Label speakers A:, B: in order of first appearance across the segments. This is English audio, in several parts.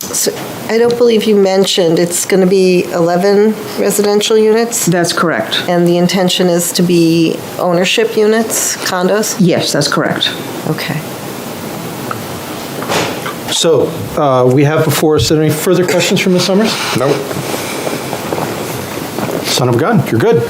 A: So I don't believe you mentioned, it's going to be 11 residential units,
B: That's correct.
A: and the intention is to be ownership units, condos?
B: Yes, that's correct.
A: Okay.
C: So uh, we have before us, are there any further questions from Ms. Summers?
D: Nope.
C: Son of a gun, you're good.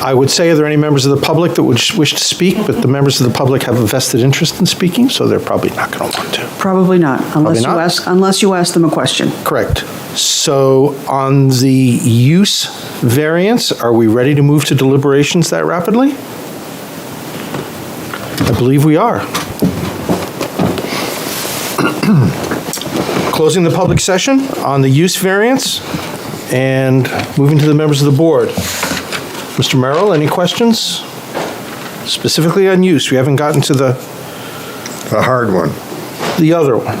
C: I would say, are there any members of the public that would wish to speak? But the members of the public have a vested interest in speaking, so they're probably not going to want to.
B: Probably not, unless you
C: not.
B: ask, unless you ask them a question.
C: Correct. So on the use variance, are we ready to move to deliberations that rapidly? I believe we are. Closing the public session on the use variance and moving to the members of the board. Mr. Merrill, any questions? Specifically on use, we haven't gotten to the,
D: The hard one.
C: the other one.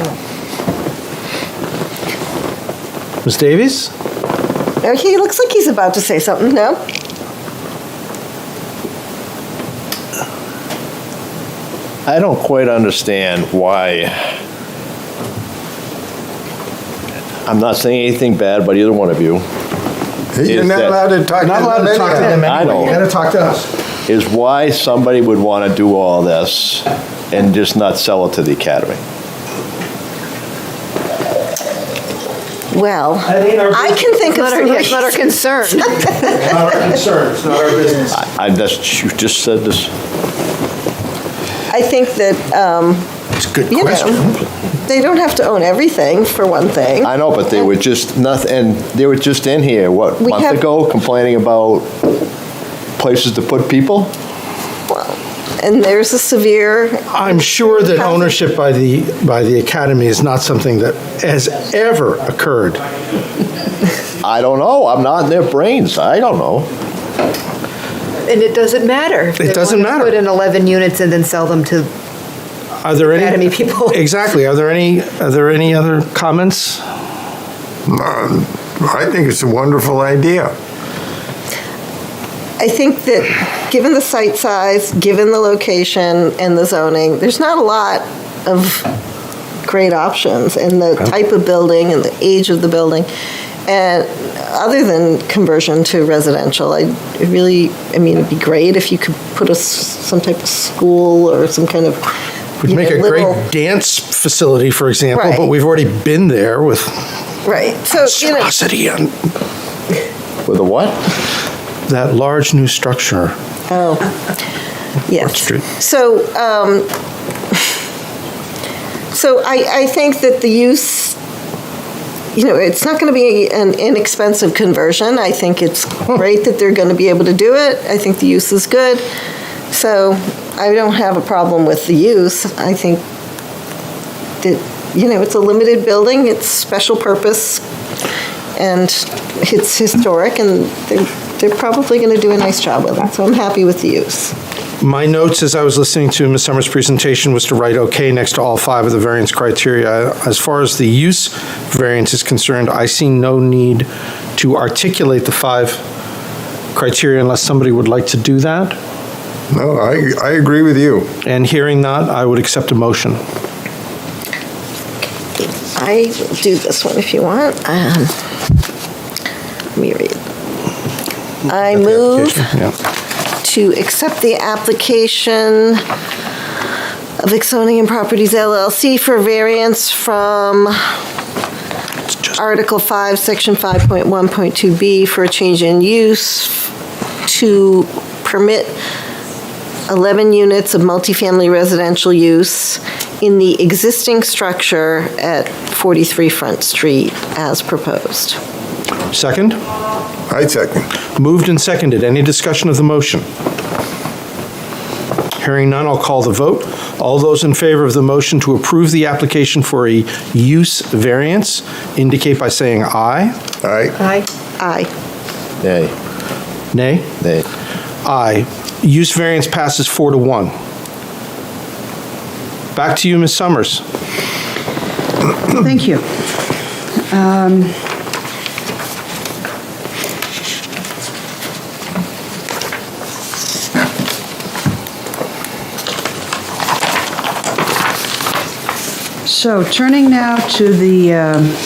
C: Ms. Davies?
A: Okay, He looks like he's about to say something, no?
E: I don't quite understand why. I'm not saying anything bad about either one of you,
D: You're
E: Is
D: not
E: that-
D: allowed to talk to them.
C: Not allowed to talk to them
D: anyhow.
E: I anyway. know.
D: You gotta talk to us.
E: is why somebody would want to do all this and just not sell it to the academy.
A: Well, I can think of some...
F: That's not our concern.
D: It's Not our concern, it's not our business.
E: I, that's, you just said this.
A: I think that, um,
D: It's a good
A: you
D: question.
A: know, they don't have to own everything, for one thing.
E: I know, but they were just nothing, and they were just in here, what,
A: We have-
E: month ago, complaining about places to put people?
A: Well, And there's a severe...
C: I'm sure that ownership by the, by the academy is not something that has ever occurred.
E: I don't know. I'm not in their brains. I don't know.
F: And it doesn't matter. It
C: doesn't matter.
F: Put in 11 units and then sell them to,
C: Are there any?
F: Academy people.
C: Exactly. Are there any, are there any other comments?
D: Um, I think it's a wonderful idea.
A: I think that, given the site size, given the location and the zoning, there's not a lot of great options in the type of building and the age of the building. And other than conversion to residential, I it really, I mean, it'd be great if you could put a, s- some type of school or some kind of.
C: Would
A: you
C: make
A: know,
C: a
A: little-
C: great dance facility, for example, but
A: Right.
C: we've already been there with
A: Right, so, you know,
C: atrocity on
E: With a what?
C: that large new structure.
A: yes.
C: Street.
A: So, um, so I, I think that the use, you know, it's not going to be an inexpensive conversion. I think it's great that they're going to be able to do it. I think the use is good. So I don't have a problem with the use. I think that, you know, it's a limited building, it's special purpose, and it's historic, and they're, they're probably going to do a nice job with it. So I'm happy with the use.
C: My notes as I was listening to Ms. Summers' presentation was to write okay next to all five of the variance criteria. As far as the use variance is concerned, I see no need to articulate the five criteria unless somebody would like to do that.
D: No, I, I agree with you.
C: And hearing that, I would accept a motion.
A: I will do this one if you want. Um, Let me read. I move
C: Yeah.
A: to accept the application of Exonian and Properties LLC for variance from Article 5, Section 5.1.2B for a change in use to permit 11 units of multifamily residential use in the existing structure at 43 Front Street as proposed.
C: Second?
D: I second.
C: Moved and seconded. Any discussion of the motion? Hearing none, I'll call the vote. All those in favor of the motion to approve the application for a use variance indicate by saying aye.
D: All right,
F: I
A: Aye.
E: Nay,
C: Nay?
E: nay.
C: Aye. Use variance passes four to one. Back to you, Ms. Summers.
B: Thank you. Um, So turning now to the um,